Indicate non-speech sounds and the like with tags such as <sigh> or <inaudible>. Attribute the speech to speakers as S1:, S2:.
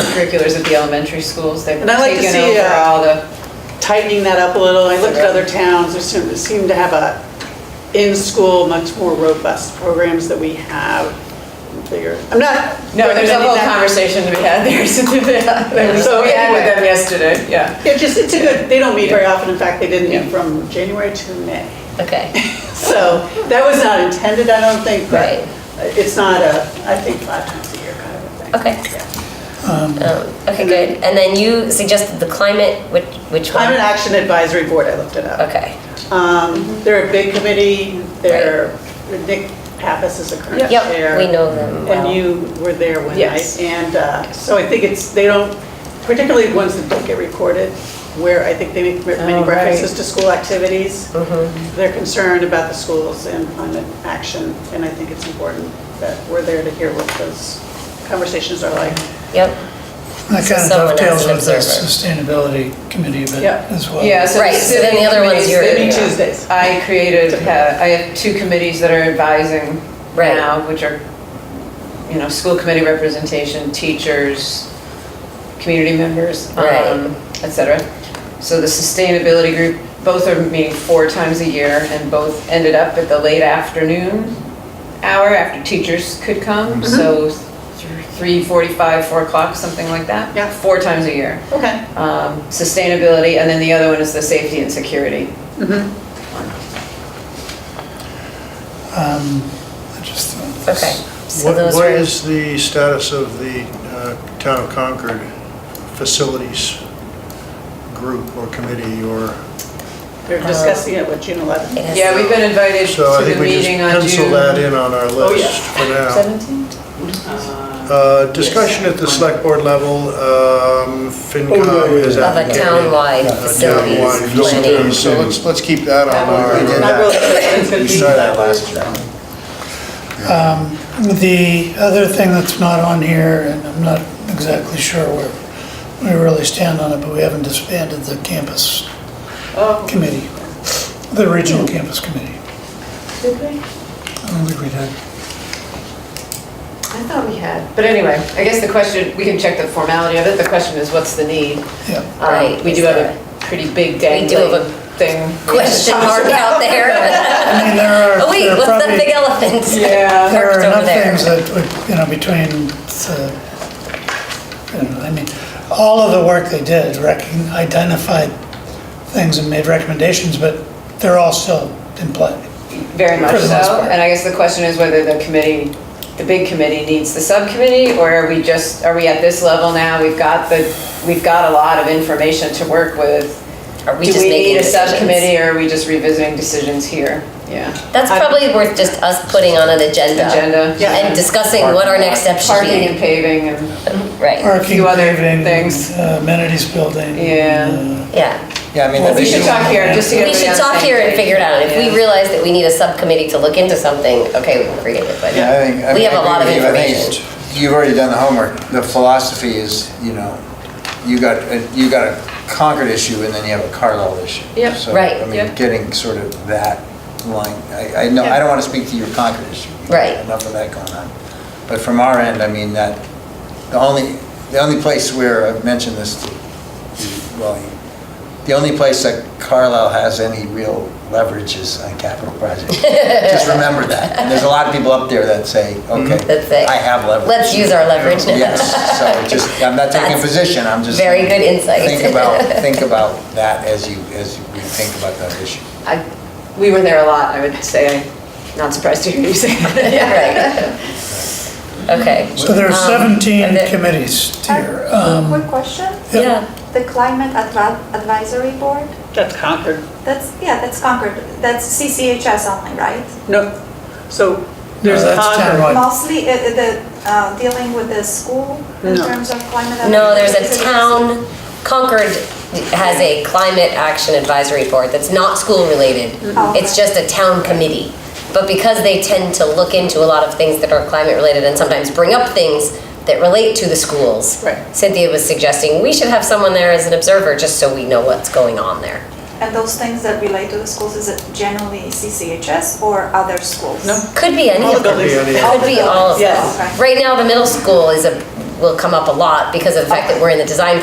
S1: extracurriculars at the elementary schools. They've
S2: And I'd like to
S1: taken
S2: see,
S1: over
S2: uh,
S1: all the,
S2: tightening that up a little. I looked at other towns, there seem seem to have a, in-school, much more robust programs that we have. Bigger. I'm not.
S1: no, there's a
S2: recommending
S1: whole
S2: that.
S1: conversation to be had there. <laughs> So
S2: So
S1: we had with
S2: anyway.
S1: them yesterday, yeah.
S2: It just, it's a good, they don't meet very often. In fact, they didn't meet from January to May.
S1: <laughs>
S3: Okay,
S2: So that was not intended, I don't think, but
S3: Right.
S2: it's not a, I think five times a year kind of a thing.
S3: okay.
S2: Yeah.
S3: Um, Okay, good. And then you suggested the climate, which, which one?
S2: Climate Action Advisory Board, I looked it up.
S3: Okay.
S2: Um, They're a big committee, they're, Nick Pappas is the current chair.
S3: Yep, we know them well.
S2: And you were there one
S1: Yes.
S2: night. And uh, so I think it's, they don't, particularly ones that don't get recorded, where I think they make
S1: Oh,
S2: many
S1: right.
S2: references to school activities. They're concerned about the schools and climate action, and I think it's important that we're there to hear what those conversations are like.
S3: Yep,
S4: That kind of
S3: Someone as
S4: dovetails
S3: an
S4: with the
S3: observer.
S4: sustainability committee event
S2: Yeah.
S4: as well.
S1: Yeah, so.
S3: Right, so then the other one's
S1: sitting
S3: your-
S2: They meet
S1: committees,
S2: Tuesdays.
S1: I created, uh, I have two committees that are advising
S3: Right.
S1: now, which are, you know, school committee representation, teachers, community members,
S3: Right.
S1: um, et cetera. So the sustainability group, both are meeting four times a year and both ended up at the late afternoon hour after teachers could come,
S4: Mm-hmm.
S1: so
S3: Mm-hmm.
S1: three forty-five, four o'clock, something like that.
S2: Yeah.
S1: Four times a year
S2: Okay.
S1: um, sustainability, and then the other one is the safety and security.
S4: Um, I just thought this-
S3: okay. So
S5: What
S3: those
S5: what
S3: were,
S5: is the status of the uh, Town of Concord Facilities Group or Committee or?
S2: They're discussing it with June 11th.
S6: Um,
S3: it has-
S1: Yeah, we've been invited to
S5: So I
S1: the
S5: think we just
S1: meeting on
S5: pencil that
S1: June
S5: in on our
S2: Oh, yeah.
S5: list for now.
S1: seventeenth.
S5: Uh, Discussion at the select board level, um, FinCom is
S3: Of a
S5: advocating.
S3: townwide
S5: uh,
S3: facilities
S5: townwide
S3: planning.
S5: Um, So let's, let's keep that on our.
S6: We did
S2: I
S6: that.
S2: really think it's gonna
S6: We
S2: be-
S6: started that last year.
S4: The other thing that's not on here, and I'm not exactly sure where we really stand on it, but we haven't disbanded the campus
S2: Oh.
S4: committee, the regional campus committee.
S1: Did we?
S4: I don't think we did.
S1: I thought we had. But anyway, I guess the question, we can check the formality of it, the question is what's the need?
S4: Yeah.
S1: Um,
S3: Right,
S1: We do
S3: is
S1: have
S3: there-
S1: a pretty big
S3: We do have a
S1: dangling thing.
S3: Question mark
S1: <laughs>
S3: out there.
S4: I mean, there are,
S3: Oh, wait,
S4: there are
S3: what's that
S4: probably-
S3: big elephant? <laughs>
S1: Yeah.
S4: There are
S3: Parked over
S4: enough
S3: there.
S4: things that, would, you know, between the, you know, I mean, all of the work they did, rec- identified things and made recommendations, but they're all still in play.
S1: Very much
S4: For the most
S1: so,
S4: part.
S1: and I guess the question is whether the committee, the big committee needs the subcommittee, or are we just, are we at this level now? We've got the, we've got a lot of information to work with.
S3: Are we
S1: Do
S3: just
S1: we
S3: making
S1: need a
S3: decisions?
S1: subcommittee, or are we just revisiting decisions here? Yeah.
S3: That's
S1: I-
S3: probably worth just us putting on an agenda.
S1: Agenda. Yeah.
S3: And discussing what our next steps should
S1: Parking and
S3: be.
S1: paving and,
S3: Right,
S4: Parking,
S1: few other
S4: paving,
S1: things.
S4: uh, amenities building.
S1: Yeah.
S4: uh,
S3: yeah.
S6: Yeah, I mean.
S4: Well,
S6: the
S1: we should
S6: issue-
S1: talk here, just to get
S3: Mm. We
S1: everybody
S3: should
S1: on the
S3: talk
S1: same
S3: here and
S1: page.
S3: figure it out. If
S1: Yeah.
S3: we realize that we need a subcommittee to look into something, okay, we can create it, but
S6: Yeah, I think. I
S3: we
S6: mean,
S3: have a
S6: I
S3: lot of
S6: agree with you. I think
S3: information.
S6: it's- You've already done the homework. The philosophy is, you know, you got, a- you got a Concord issue and then you have a Carlisle issue.
S1: Yep.
S6: So,
S3: Right,
S6: I mean,
S1: yep.
S6: getting sort of that line, I, I know, I don't want to speak to your Concord issue. You've got
S3: Right.
S6: Enough of that going on. But from our end, I mean, that, the only, the only place where, I've mentioned this to you, well, the only place that Carlisle has any real leverage is on capital
S3: <laughs>
S6: projects. Just remember that. And There's a lot of people up there that say,
S3: That's it.
S6: okay, I have leverage.
S3: Mm-hmm. Let's use our leverage now.
S6: Yes, so just, I'm not taking a
S3: That's
S6: position, I'm just.
S3: very good insight.
S6: Think about,
S3: <laughs>
S6: think about that as you, as you think about that issue.
S1: I, we were there a lot, I would say, I'm not surprised to hear you say that.
S3: <laughs> Right. Okay.
S4: So there are
S3: Um,
S4: 17
S3: and the-
S4: committees here. um,
S7: Uh, Quick question,
S4: Yep.
S3: Yeah,
S7: the Climate Advi- Advisory Board,
S2: That's Concord.
S7: that's, yeah, that's Concord, that's CCHS only, right?
S2: No, so there's
S4: Uh, that's
S2: Concord.
S4: townwide. Right.
S7: Mostly uh, uh, the, uh, dealing with the school in
S2: No.
S7: terms of climate.
S3: no, there's
S7: advisory.
S3: a town, Concord has a climate action advisory board that's not school related.
S7: Oh,
S3: It's
S7: okay.
S3: just a town committee. But because they tend to look into a lot of things that are climate related and sometimes bring up things that relate to the schools.
S2: Right.
S3: Cynthia was suggesting we should have someone there as an observer just so we know what's going on there.
S7: And those things that relate to the schools, is it generally CCHS or other schools?
S2: No.
S3: Could be any
S2: All
S3: of
S2: the
S3: them.
S2: buildings.
S3: Could be all of them.
S2: Yes.
S7: Okay.
S3: Right now, the middle school is a will come up a lot because of the fact that we're in the design